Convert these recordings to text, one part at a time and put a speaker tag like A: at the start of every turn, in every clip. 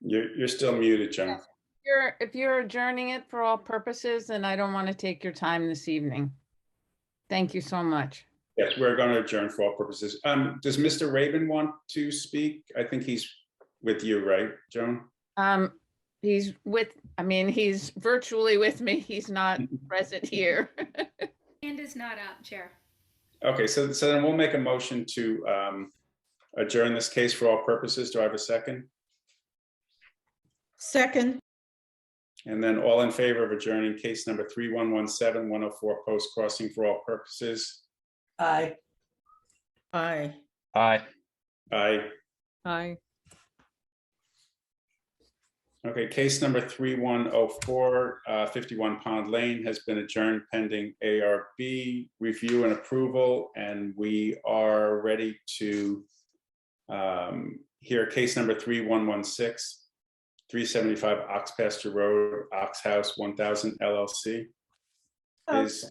A: You're, you're still muted, John.
B: You're, if you're adjourning it for all purposes, then I don't want to take your time this evening. Thank you so much.
A: Yes, we're going to adjourn for all purposes. Um, does Mr. Raven want to speak? I think he's with you, right, Joan?
B: Um, he's with, I mean, he's virtually with me. He's not present here.
C: Hand is not up, Chair.
A: Okay, so, so then we'll make a motion to, um, adjourn this case for all purposes. Do I have a second?
D: Second,
A: And then all in favor of adjourning case number 3117104 Post Crossing for all purposes?
E: Aye.
D: aye.
F: Aye.
A: Aye.
G: Aye.
A: Okay, case number 3104, uh, 51 Pond Lane has been adjourned pending ARB review and approval, and we are ready to um, hear case number 3116, 375 Ox Pasture Road, Ox House 1000 LLC.
D: Oh.
A: Is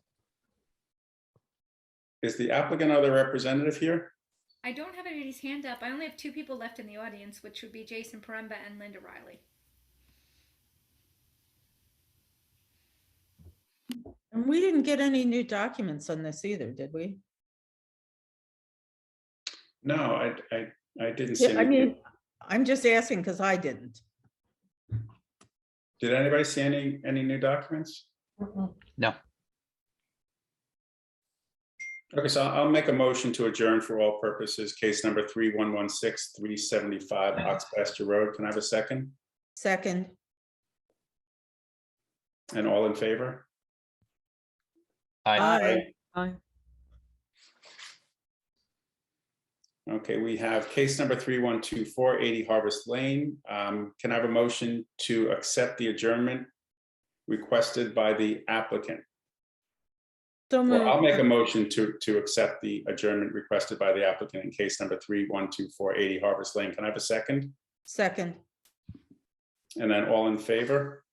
A: is the applicant or their representative here?
C: I don't have anybody's hand up. I only have two people left in the audience, which would be Jason Paremba and Linda Riley.
D: And we didn't get any new documents on this either, did we?
A: No, I, I, I didn't see.
D: Yeah, I
A: any-
D: mean, I'm just asking because I didn't.
A: Did anybody see any, any new documents?
F: No.
A: Okay, so I'll make a motion to adjourn for all purposes, case number 3116, 375 Ox Pasture Road. Can I have a second?
D: Second,
A: And all in favor?
F: Aye.
D: aye.
G: Aye.
A: Okay, we have case number 3124, 80 Harvest Lane. Um, Can I have a motion to accept the adjournment requested by the applicant?
D: So
A: Well, I'll make a
D: moved.
A: motion to, to accept the adjournment requested by the applicant in case number three, one, two, four, eighty Harvest Lane. Can I have a second?
D: Second,
A: And then all in favor?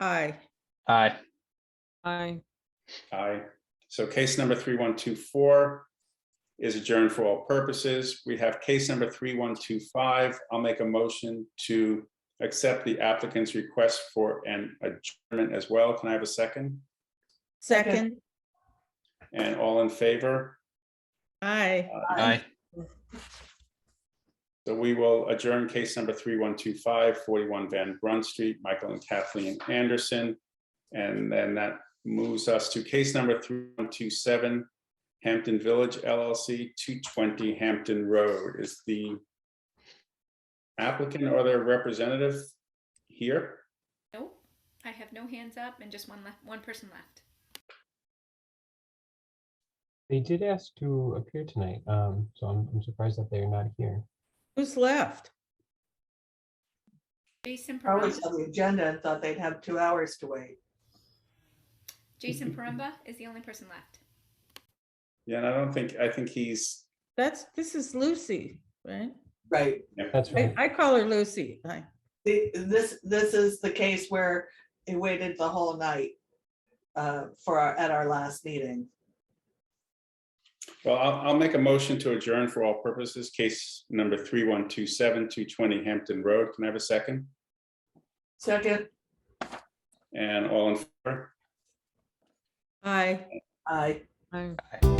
D: aye.
F: Aye.
G: Aye.
A: Aye. So case number three, one, two, four is adjourned for all purposes. We have case number three, one, two, five. I'll make a motion to accept the applicant's request for an adjournment as well. Can I have a second?
D: Second,
A: And all in favor?
D: aye.
F: Aye.
A: So we will adjourn case number 3125, 41 Van Brunt Street, Michael and Kathleen Anderson. And then that moves us to case number 3127, Hampton Village LLC, 220 Hampton Road. Is the applicant or their representative here?
C: Nope. I have no hands up and just one left, one person left.
H: They did ask to appear tonight, um, so I'm, I'm surprised that they're not here.
D: Who's left?
C: Jason
E: I was
C: Paremba.
E: on the agenda and thought they'd have two hours to wait.
C: Jason Paremba is the only person left.
A: Yeah, and I don't think, I think he's,
D: That's, this is Lucy, right?
E: Right.
H: That's
D: I,
H: right.
D: I call her Lucy. Aye.
E: The- This, this is the case where it waited the whole night uh, for, our at our last meeting.
A: well, I'll, I'll make a motion to adjourn for all purposes, case number 3127, 220 Hampton Road. Can I have a second?
E: Second,
A: And all in favor?
D: Aye.
E: aye.
G: Aye.
F: Aye.